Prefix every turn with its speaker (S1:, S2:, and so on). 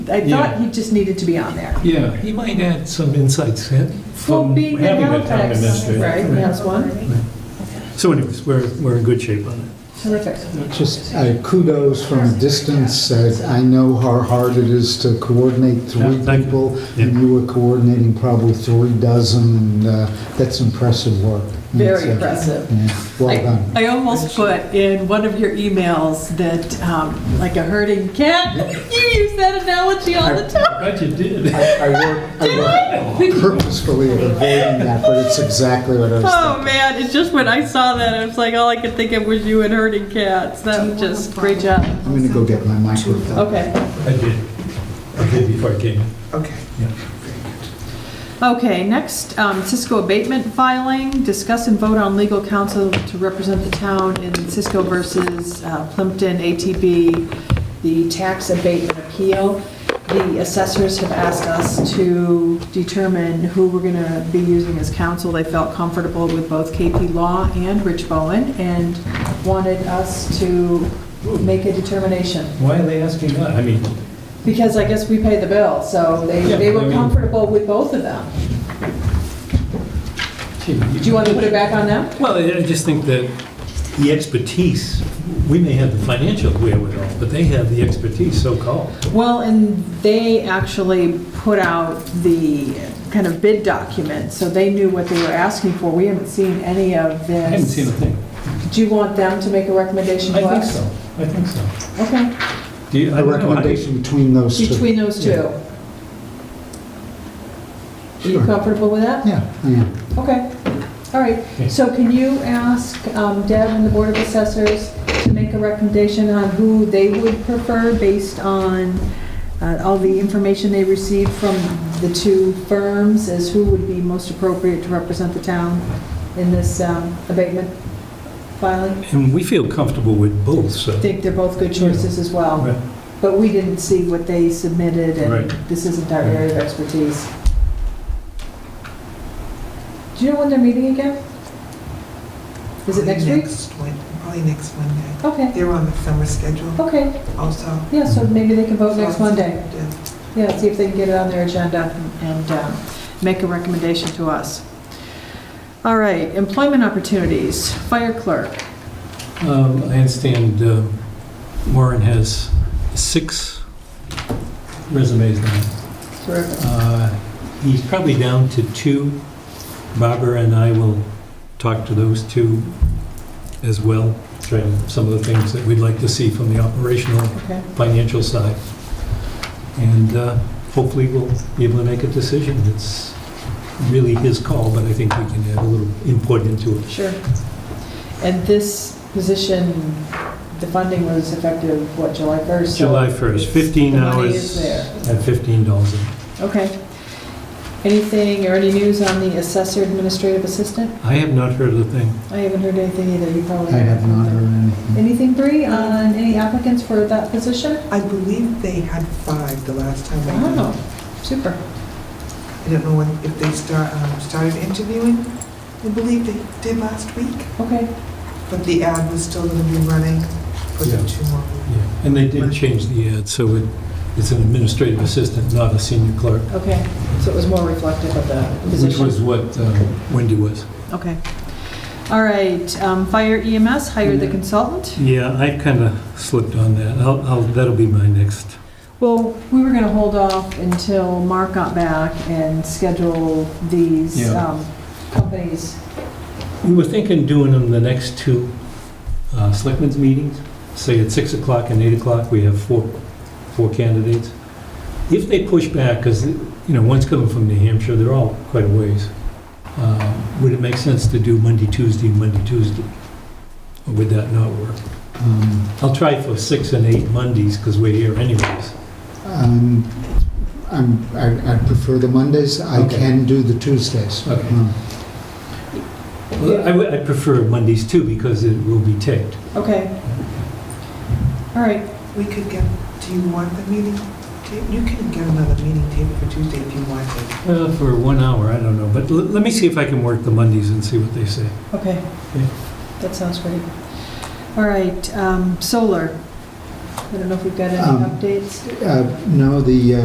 S1: I
S2: Yeah.
S1: thought he just needed to be on there.
S2: Yeah, he might add some insights eh,
S1: Well,
S2: from
S1: being in
S2: having a town
S1: Halifax,
S2: administrator.
S1: right, he has one,
S2: So anyways, we're, we're in good shape on
S1: terrific.
S2: that. Just,
S3: Uh, Kudos from a distance. Uh, I know how hard it is to coordinate three
S2: Yeah, thank you.
S3: people,
S2: Yeah.
S3: and you were coordinating probably three dozen, and uh, that's impressive work. That's,
S1: Very
S3: uh,
S1: impressive.
S3: yeah, Well
S4: I-
S3: done.
S4: I almost put in one of your emails that, um, like a herding cat, you use that analogy all the time.
S2: I bet you did.
S3: I I worked I worked purposefully at avoiding that, but it's exactly what I was thinking.
S4: Oh, man, it's just when I saw that, I was like, all I could think of was you and herding cats. That was Oh, just, great job.
S3: I'm going to go get my microphone.
S4: Okay.
S2: I did. I did before I came.
S3: Okay.
S4: Okay, next, um, Cisco abatement filing, discuss and vote on legal counsel to represent the town in Cisco versus uh, Plimpton ATB, the tax abatement appeal. The assessors have asked us to determine who we're going to be using as counsel. They felt comfortable with both KP Law and Rich Bowen and wanted us to make a determination.
S2: Why are they asking that? I mean,
S4: Because I guess we pay the bill, so they,
S2: Yeah,
S4: they
S2: I
S4: were
S2: mean-
S4: comfortable with both of them.
S2: gee,
S4: Do you want to put it back on them?
S2: Well, I I just think that the expertise, we may have the financial wherewithal, but they have the expertise, so-called.
S4: Well, and they actually put out the kind of bid document, so they knew what they were asking for. We haven't seen any of this.
S2: I haven't seen a thing.
S4: Do you want them to make a recommendation to
S2: I think
S4: us?
S2: so. I think so.
S4: Okay,
S2: Do you, I
S3: A
S2: don't know, I-
S3: recommendation between those two.
S4: between those two.
S2: Yeah.
S4: Are you
S3: Sure.
S4: comfortable with that?
S3: Yeah, yeah.
S4: Okay, all right.
S2: Yeah.
S4: So can you ask um, Deb and the Board of Assessors to make a recommendation on who they would prefer based on uh, all the information they received from the two firms as who would be most appropriate to represent the town in this um, abatement filing?
S2: And we feel comfortable with both,
S4: I
S2: so.
S4: think they're both good choices as well,
S2: Right.
S4: but we didn't see what they submitted, and
S2: Right.
S4: this isn't our area of expertise. Do you know when they're meeting again? Is it next week?
S5: week? Probably next Monday.
S4: Okay,
S5: They're on the summer schedule
S4: okay,
S5: also.
S4: yeah, so maybe they can vote
S5: So
S4: Oh, next
S5: it's-
S4: Monday.
S5: yeah.
S4: Yeah, see if they can get it on their agenda and um, make a recommendation to us. All right, employment opportunities, fire clerk.
S2: Um, I understand uh, Warren has six resumes now.
S4: Terrific.
S2: Uh, He's probably down to two. Barbara and I will talk to those two as well, trying some of the things that we'd like to see from the operational,
S4: Okay,
S2: financial side. And uh, hopefully, we'll be able to make a decision. It's really his call, but I think we can add a little input into it.
S4: sure. And this position, the funding was effective, what, July 1st? So
S2: July 1st, 15
S4: the
S2: hours.
S4: money is there.
S2: At $15 an hour.
S4: Okay. Anything or any news on the assessor administrative assistant?
S2: I have not heard a thing.
S4: I haven't heard anything either, you probably.
S3: I have not heard anything.
S4: Anything, Bree, on any applicants for that position?
S5: I believe they had five the last time I did.
S4: Wow, super.
S5: I don't know when- if they start, um, started interviewing. I believe they did last week,
S4: Okay,
S5: but the ad was still going to be running for the
S2: Yeah.
S5: two more weeks.
S2: And they did change the ad, so it- it's an administrative assistant, not a senior clerk,
S4: okay. So it was more reflective of the
S2: which
S4: position?
S2: was what um, Wendy was.
S4: Okay. All right, um, fire EMS, hire the consultant.
S2: Yeah, I kind of slipped on that. I'll- I'll- That'll be my next.
S4: Well, we were going to hold off until Mark got back and schedule these
S2: Yeah.
S4: um, companies.
S2: We were thinking doing them the next two uh, selectmen's meetings, say at 6 o'clock and 8 o'clock, we have four, four candidates. If they push back, because, you know, one's coming from New Hampshire, they're all quite a ways, uh, would it make sense to do Monday, Tuesday, Monday, Tuesday? Or would that not work?
S3: Um,
S2: I'll try for 6 and 8 Mondays, because we're here anyways.
S3: Um, I'm, I I prefer the Mondays. I
S2: Okay.
S3: can do the Tuesdays.
S2: Okay.
S3: Um,
S2: Well, I would- I prefer Mondays too, because it will be taped.
S4: Okay. All right,
S5: We could get, do you want the meeting tape? You can get another meeting table for Tuesday if you want it.
S2: Uh, For one hour, I don't know, but l- let me see if I can work the Mondays and see what they say.
S4: okay.
S2: Yeah.
S4: That sounds great. All right, um, solar. I don't know if we've got any
S3: Um,
S4: updates.
S3: Uh, No, the, uh,